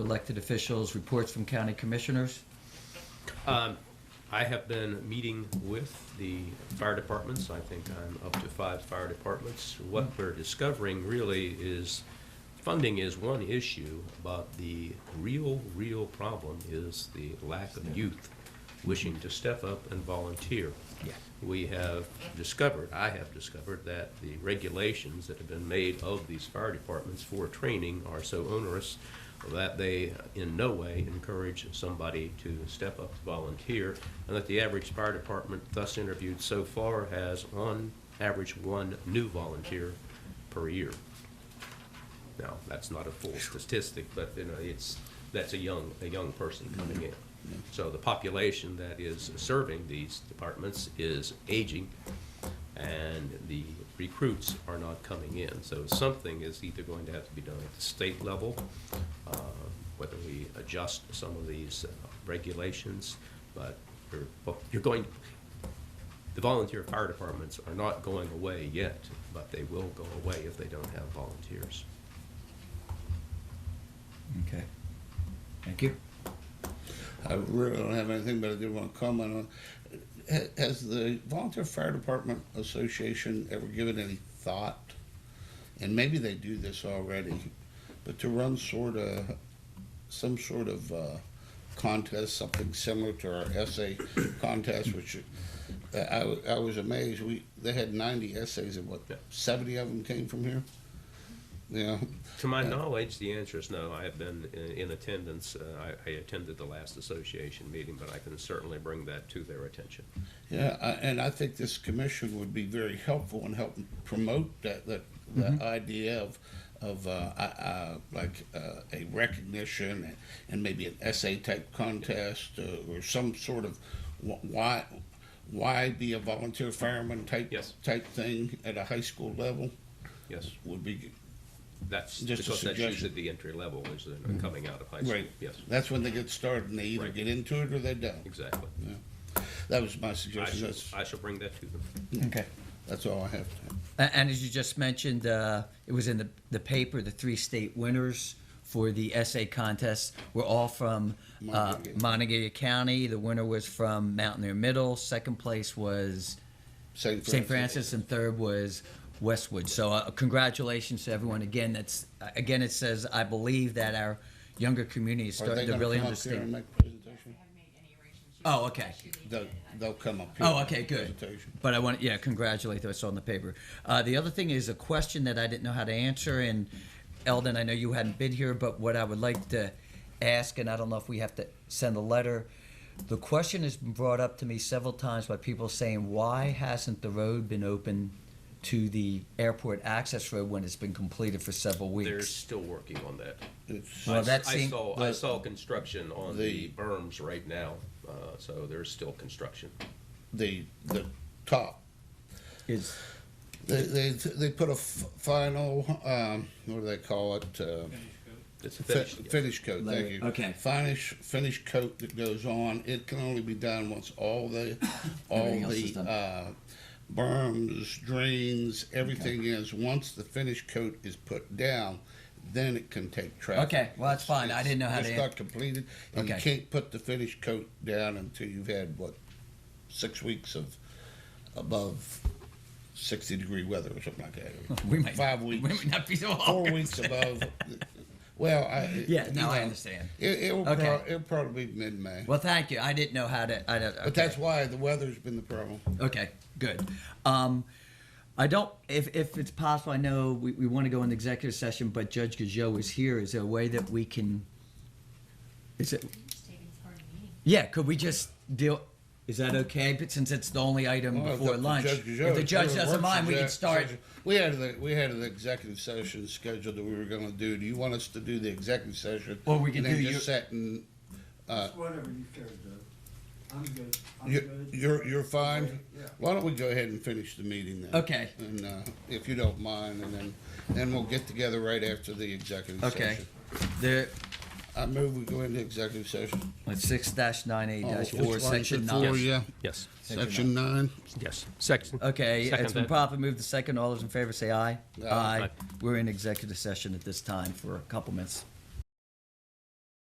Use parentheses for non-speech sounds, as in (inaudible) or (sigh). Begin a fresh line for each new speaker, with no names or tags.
elected officials, reports from county commissioners.
Um, I have been meeting with the fire departments. I think I'm up to five fire departments. What we're discovering really is funding is one issue, but the real, real problem is the lack of youth wishing to step up and volunteer. We have discovered, I have discovered, that the regulations that have been made of these fire departments for training are so onerous that they in no way encourage somebody to step up to volunteer, and that the average fire department thus interviewed so far has on average one new volunteer per year. Now, that's not a full statistic, but you know, it's, that's a young, a young person coming in. So the population that is serving these departments is aging, and the recruits are not coming in. So something is either going to have to be done at the state level, uh, whether we adjust some of these uh, regulations, but you're, well, you're going, the volunteer fire departments are not going away yet, but they will go away if they don't have volunteers.
Okay. Thank you.
I really don't have anything, but I did want to comment on. ha- Has the Volunteer Fire Department Association ever given any thought? And maybe they do this already, but to run sort of, some sort of uh, contest, something similar to our essay (coughs) contest, which uh, I, wa- I was amazed. We they had 90 essays, and what,
Yeah.
70 of them came from here? Yeah.
To my knowledge, the answer is no. I have been in, in attendance. Uh, I, I attended the last association meeting, but I can certainly bring that to their attention.
Yeah, I- and I think this commission would be very helpful in helping promote that, that,
Mm-hmm.
that idea of, of, uh, uh, like, uh, a recognition and- and maybe an essay type contest uh, or some sort of wh- why, why be a volunteer fireman type,
Yes.
type thing at a high school level
Yes,
would be,
that's
Just a
because that's usually
suggestion. Mm-hmm.
the entry level is the coming out of high school.
right.
Yes,
That's when they get started and they either
Right.
get into it or they don't.
exactly.
That was my
I
suggestion.
shall,
That's,
I shall bring that to them.
Okay.
that's all I have. to-
A- And as you just mentioned, uh, it was in the, the paper, the three state winners for the essay contest were all from uh,
Montague.
Montague County. The winner was from Mountaineer Middle. Second place was St. Francis, and third was Westwood. So uh, congratulations to everyone again. That's again, it says I believe that our younger community is
Are they
starting to
gonna
really
come up here and
understand.
make presentation?
haven't made any arrangements.
Oh, okay.
They'll, they'll come up here.
Oh, okay, good.
Presentation.
But I want, yeah, congratulate those on the paper. Uh, the other thing is a question that I didn't know how to answer, and Eldon, I know you hadn't been here, but what I would like to ask, and I don't know if we have to send a letter. The question has been brought up to me several times by people saying, why hasn't the road been open to the airport access road when it's been completed for several weeks?
They're still working on that.
It's-
Well,
I s-
that
I
seem-
saw, I
but-
saw construction on the
The-
berms right now, uh, so there's still construction.
The, the top,
Is-
they, they, they put a f- final, um, what do they call it? Uh,
It's
fi-
finished. yeah.
Finish coat, thank you.
Okay.
Finish, finish coat that goes on, it can only be done once all the, all
(coughs) Everything else is
the,
done.
uh, berms, drains, everything is, once the finish coat is put down, then it can take traffic.
Okay, well, that's fine. I didn't know how
It's-
to-
It's not completed, and you
Okay.
can't put the finish coat down until you've had, what, six weeks of above sixty-degree weather or something like
(laughs)
that.
we might
Five
we
weeks
might not be so
four weeks above. Well, I
(laughs) Yeah, no,
you
I
know,
understand.
It, it will
Okay.
prob- it'll probably be mid-May,
Well, thank you. I didn't know how to. I don't, okay.
but that's why the weather's been the problem.
Okay, good. Um, I don't, if, if it's possible, I know we, we want to go into executive session, but Judge Gajot is here. Is there a way that we can, is it,
Just taking part in the meeting.
yeah, could we just deal, is that okay? But since it's the only item
Well, if
before
the
lunch,
judge-
if the judge
whatever
doesn't
works
mind,
for
we can
judge-
start.
judge- We had the we had an executive session scheduled that we were going to do. Do you want us to do the executive session?
Or we can
and
do
then just
your-
set and Uh,
It's whatever you care to do. I'm good. I'm
you're
good.
you're, you're fine.
Yeah.
Why don't we go ahead and finish the meeting then?
Okay.
And uh, if you don't mind, and then then we'll get together right after the executive
Okay.
session.
There,
I move we go into executive session.
six dash nine eight dash
Oh,
four,
which one is
section
it
nine.
for? Yeah.
Yes,
Section nine.
yes. Section.
Okay,
Second
it's been
that.
properly moved to second. All those in favor say aye.
Aye.
Aye.
We're in executive session at this time for a couple minutes.